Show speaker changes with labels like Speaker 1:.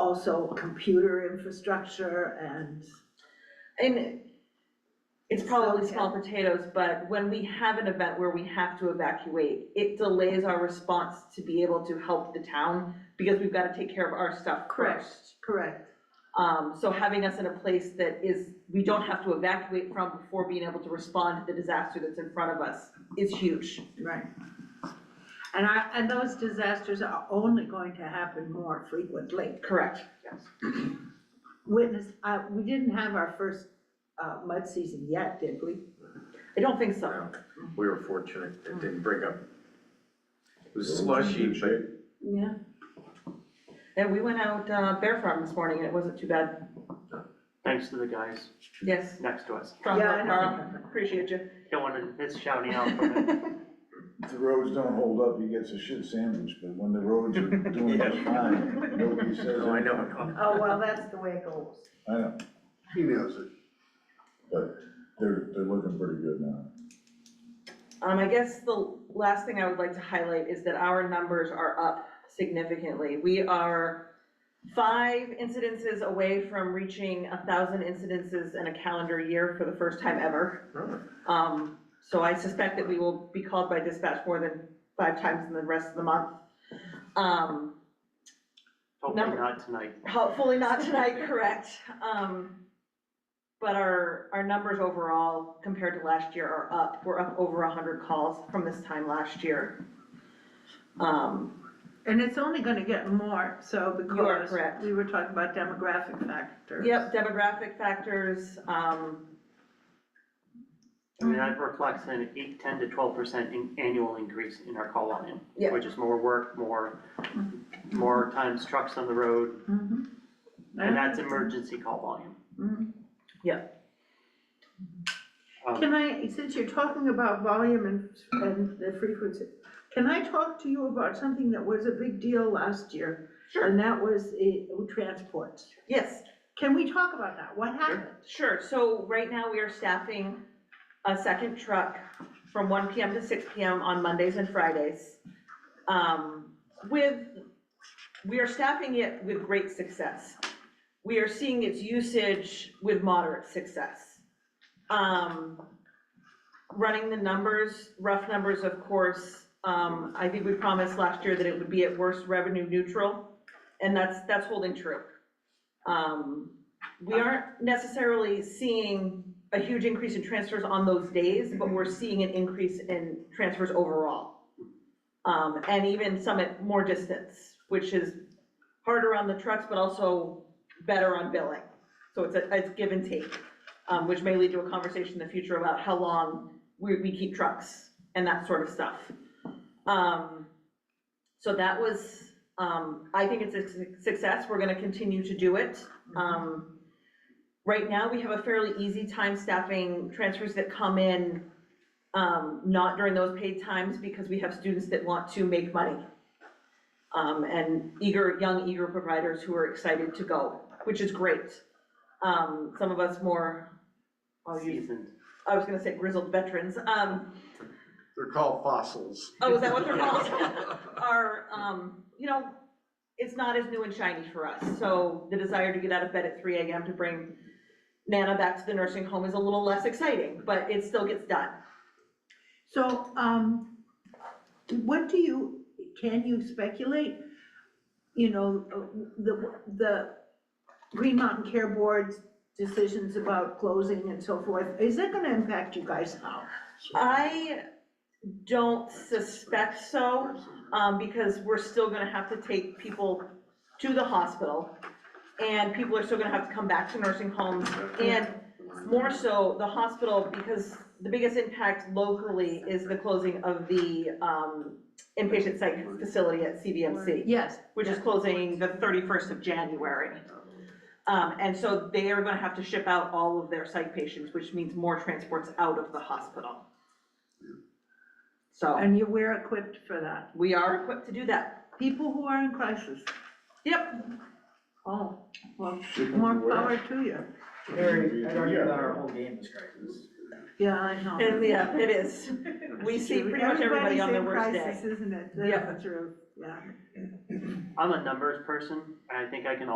Speaker 1: also computer infrastructure and,
Speaker 2: And it's probably small potatoes, but when we have an event where we have to evacuate, it delays our response to be able to help the town because we've got to take care of our stuff
Speaker 1: Correct.
Speaker 2: first.
Speaker 1: correct,
Speaker 2: Um, so having us in a place that is, we don't have to evacuate from before being able to respond to the disaster that's in front of us is huge.
Speaker 1: right. And I, and those disasters are only going to happen more frequently.
Speaker 2: Correct.
Speaker 1: Witness, uh, we didn't have our first, uh, mud season yet, did we?
Speaker 2: I don't think so.
Speaker 3: No, We were fortunate, it didn't break up. It was slushy, but
Speaker 1: Yeah.
Speaker 2: And we went out, uh, Bear Farm this morning and it wasn't too bad.
Speaker 4: Thanks to the guys
Speaker 2: Yes.
Speaker 4: next to us.
Speaker 2: Strong
Speaker 1: Yeah,
Speaker 2: work,
Speaker 1: I know.
Speaker 2: Carl. Appreciate you.
Speaker 4: Don't want to miss shouting out from it.
Speaker 5: If the roads don't hold up, he gets a shit sandwich, but when the roads are doing just fine, nobody says
Speaker 3: no, I
Speaker 5: anything.
Speaker 3: know, no.
Speaker 1: Oh, well, that's the way it goes.
Speaker 5: I know,
Speaker 6: He knows it.
Speaker 5: but they're, they're looking pretty good now.
Speaker 2: Um, I guess the last thing I would like to highlight is that our numbers are up significantly. We are five incidences away from reaching a thousand incidences in a calendar year for the first time ever. Um, so I suspect that we will be called by dispatch more than five times in the rest of the month. Um,
Speaker 4: Hopefully
Speaker 2: Number-
Speaker 4: not tonight.
Speaker 2: Hopefully not tonight, correct. Um, but our, our numbers overall compared to last year are up. We're up over hundred calls from this time last year. Um,
Speaker 1: And it's only gonna get more, so because.
Speaker 2: You are correct.
Speaker 1: We were talking about demographic factors.
Speaker 2: yep, demographic factors, um,
Speaker 4: I
Speaker 2: Mm-hmm.
Speaker 4: mean, that reflects an eight, ten to twelve percent in annual increase in our call volume.
Speaker 2: Yeah. Mm-hmm.
Speaker 4: Which is more work, more, more times trucks on the road,
Speaker 1: Mhm.
Speaker 4: and that's emergency call volume.
Speaker 1: Mhm.
Speaker 4: Um,
Speaker 1: Can I, since you're talking about volume and, and the frequency, can I talk to you about something that was a big deal last year?
Speaker 2: Sure.
Speaker 1: And that was the transport.
Speaker 2: yes,
Speaker 1: Can we talk about that? What happened?
Speaker 2: sure. So right now we are staffing a second truck from one PM to six PM on Mondays and Fridays. Um, with, we are staffing it with great success. We are seeing its usage with moderate success. Um, running the numbers, rough numbers, of course, um, I think we promised last year that it would be at worst revenue neutral, and that's, that's holding true. Um, we aren't necessarily seeing a huge increase in transfers on those days, but we're seeing an increase in transfers overall. Um, and even some at more distance, which is harder on the trucks, but also better on billing. So it's a, it's give and take, um, which may lead to a conversation in the future about how long we, we keep trucks and that sort of stuff. Um, so that was, um, I think it's a suc- success. We're gonna continue to do it. Um, right now, we have a fairly easy time staffing transfers that come in, um, not during those paid times because we have students that want to make money. Um, and eager, young eager providers who are excited to go, which is great. Um, some of us more, I'll use-
Speaker 4: seasoned.
Speaker 2: I was gonna say grizzled veterans, um,
Speaker 6: They're called fossils.
Speaker 2: oh, is that what they're called? are, um, you know, it's not as new and shiny for us, so the desire to get out of bed at three AM to bring Nana back to the nursing home is a little less exciting, but it still gets done.
Speaker 1: So, um, what do you, can you speculate? You know, uh, the, the Green Mountain Care Board's decisions about closing and so forth, is that gonna impact you guys now?
Speaker 2: Uh, I don't suspect so, um, because we're still gonna have to take people to the hospital, and people are still gonna have to come back to nursing homes, and more so, the hospital, because the biggest impact locally is the closing of the, um, inpatient psych facility at CVMC,
Speaker 1: Yes.
Speaker 2: which is closing the thirty-first of January. Um, and so they are gonna have to ship out all of their psych patients, which means more transports out of the hospital. So,
Speaker 1: And you were equipped for that.
Speaker 2: we are equipped to do that.
Speaker 1: People who are in crisis.
Speaker 2: Yep,
Speaker 1: Oh, well,
Speaker 5: Shipping to
Speaker 1: more
Speaker 5: where?
Speaker 1: power to you.
Speaker 7: Very, I argue that our whole game is crisis.
Speaker 1: Yeah, I know.
Speaker 2: and yeah, it is. We see pretty much everybody on their worst
Speaker 1: Everybody's in
Speaker 2: day.
Speaker 1: crisis, isn't it?
Speaker 2: Yeah.
Speaker 1: That's true, yeah.
Speaker 4: I'm a numbers person, and I think I can